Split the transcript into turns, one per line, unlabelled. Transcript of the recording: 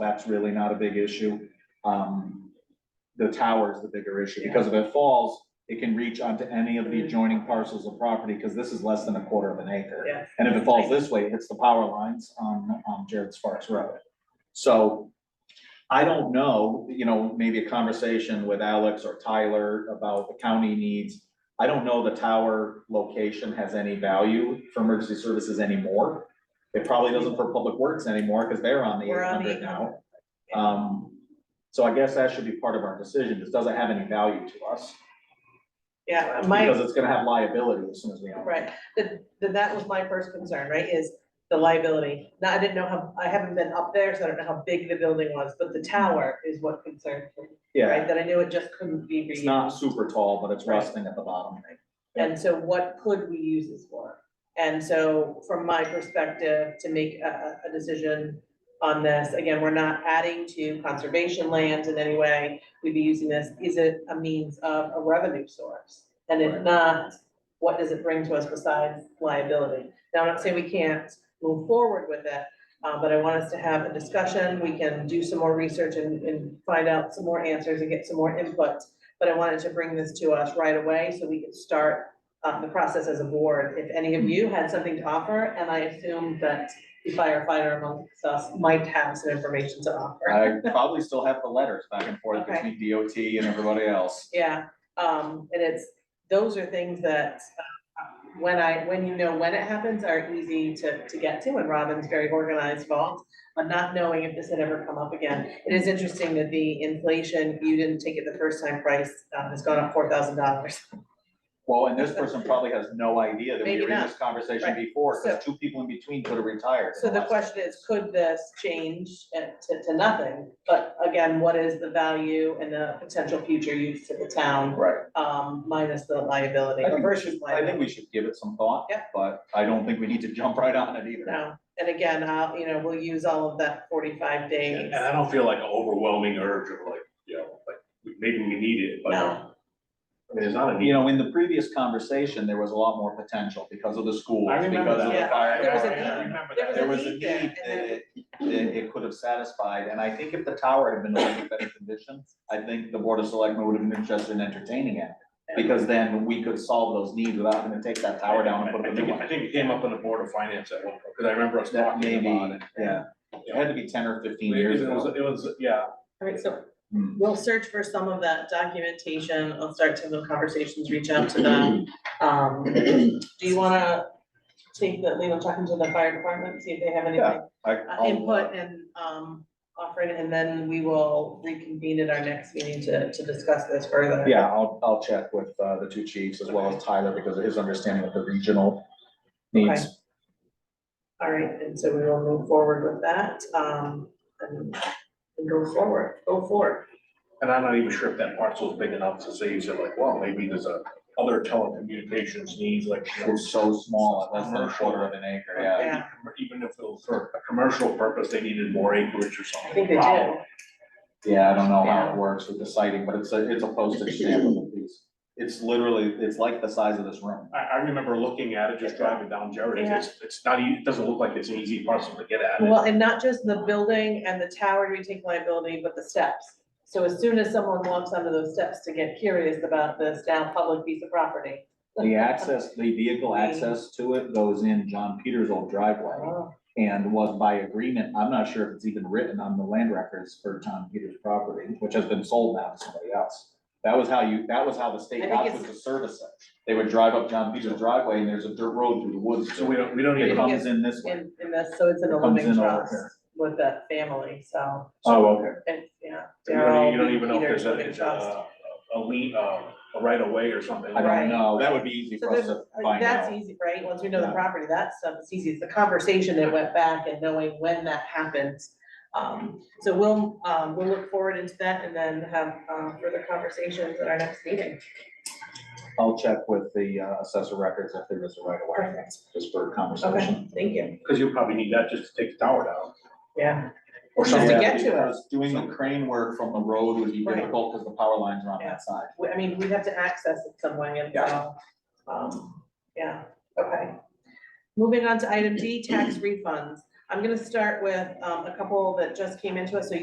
that's really not a big issue. Um, the tower is the bigger issue, because if it falls, it can reach onto any of the adjoining parcels of property, because this is less than a quarter of an acre.
Yeah.
And if it falls this way, it hits the power lines on, on Jared Sparks Road. So I don't know, you know, maybe a conversation with Alex or Tyler about the county needs. I don't know the tower location has any value for emergency services anymore. It probably doesn't for public works anymore, because they're on the
We're
eight
on the
hundred now. Um, so I guess that should be part of our decision, this doesn't have any value to us,
Yeah, my,
because it's gonna have liability as soon as we own it.
right, that, that- that was my first concern, right, is the liability. Now, I didn't know how, I haven't been up there, so I don't know how big the building was, but the tower is what concerned me,
Yeah,
right? That I knew it just couldn't be
it's
reused.
not super tall, but it's rusting at the bottom.
And so what could we use this for? And so from my perspective, to make a, a- a decision on this, again, we're not adding to conservation lands in any way. We'd be using this, is it a means of a revenue source? And if
Right.
not, what does it bring to us besides liability? Now, I'm not saying we can't move forward with it, uh, but I want us to have a discussion. We can do some more research and, and find out some more answers and get some more input. But I wanted to bring this to us right away so we could start uh, the process as a board, if any of you had something to offer, and I assume that the firefighter amongst us might have some information to offer.
I probably still have the letters back and forth between DOT and everybody else.
Yeah, um, and it's, those are things that, uh, when I, when you know when it happens, are easy to, to get to, and Robin's very organized involved. But not knowing if this had ever come up again, it is interesting that the inflation, you didn't take it the first time price, um, has gone up four thousand dollars.
Well, and this person probably has no idea that we
Maybe
were in
not.
this conversation
Right.
before, because
So-
two people in between could have retired. in
So the
last-
question is, could this change at- to, to nothing? But again, what is the value and the potential future use to the town,
Right,
um, minus the liability
I think-
versus
I think
liability?
we should give it some thought.
Yeah.
But I don't think we need to jump right on it either.
No, and again, I'll, you know, we'll use all of that forty-five days.
And I don't feel like an overwhelming urge of like, you know, like, maybe we need it, but I
No,
mean, there's not a
You
need.
know, in the previous conversation, there was a lot more potential because of the schools,
I
because
remember
of the
that.
Yeah.
fire.
There was a
I- I
need.
remember
There
that.
There was a
need there,
need that
and
it, that it could have satisfied, and I think if the tower had been in a better condition, I think the board of selectmen would have been interested in entertaining it. Because then we could solve those needs without having to take that tower down and put
I
up a new
think,
one.
I think it came up on the board of finance at one point, because I remember us
That
talking about
maybe,
it.
yeah, it had to be ten or fifteen years
It was,
ago.
it was, yeah,
all right, so
Hmm.
we'll search for some of that documentation. I'll start to have the conversations, reach out to them. Um, do you wanna take the, legal talking to the fire department, see if they have anything?
Yeah. I-
uh,
I'll,
input and um offering, and then we will reconvene at our next meeting to to discuss this further.
uh, Yeah, I'll, I'll check with, uh, the two chiefs as well as Tyler because of his understanding of the regional needs.
All right, and so we will move forward with that, um, and and go forward, go forward.
and I'm not even sure if that parcel is big enough to say, you said like, well, maybe there's a other telecommunications needs, like. you know,
It's so small, at less than a quarter of an acre, yeah.
Yeah.
Even if it was for a commercial purpose, they needed more acreage or something.
I think they
Wow.
do.
Yeah, I don't know how
Yeah.
it works with the sighting, but it's a, it's a postage stamp of a piece. It's literally, it's like the size of this room.
I, I remember looking at it, just driving down Jerry, it's, it's not, e- it doesn't look like it's an easy parcel to get at.
Well, and not just the building and the tower do we take liability, but the steps. So as soon as someone walks onto those steps to get curious about this now public piece of property.
The access, the vehicle access to it goes in John Peters' old driveway
Oh,
and was by agreement, I'm not sure if it's even written on the land records for John Peters' property, which has been sold now to somebody else. That was how you, that was how the
I
state
think
got was
it's-
to service it. They would drive up John Peters' driveway and there's a dirt road through the woods.
So we don't, we don't
It
even.
Maybe it's
comes in this way.
In in this, so it's in a
It comes
living
in over
trust
here.
with that family, so.
Oh, okay.
And, yeah.
You don't, e-, you don't
Daryl,
even know if there's
Peter,
a, uh,
Living
it's
Trust.
a, a lien, uh, a right of way or something.
I
Right.
don't know. That would be easy
So
for us
there's, uh,
to find
that's
out.
easy, right? Once we know the
Yeah.
property, that stuff is easy. It's the conversation that went back and knowing when that happens. Um, so we'll, um, we'll look forward into that and then have, um, further conversations at our next meeting.
I'll check with the uh, assessor records if there is a right of way,
Perfect.
just for conversation.
Okay, thank you.
Cause you'll probably need that just to take the tower down
Yeah,
or
Just to
something.
get to it.
Because Doing the crane work from the road would be
Right.
difficult because the power lines are on
Yeah.
that side.
We- I mean, we have to access it some way and uh, so, um, yeah, okay. Moving on to item D, tax refunds. I'm gonna start with, um, a couple that just came into us, so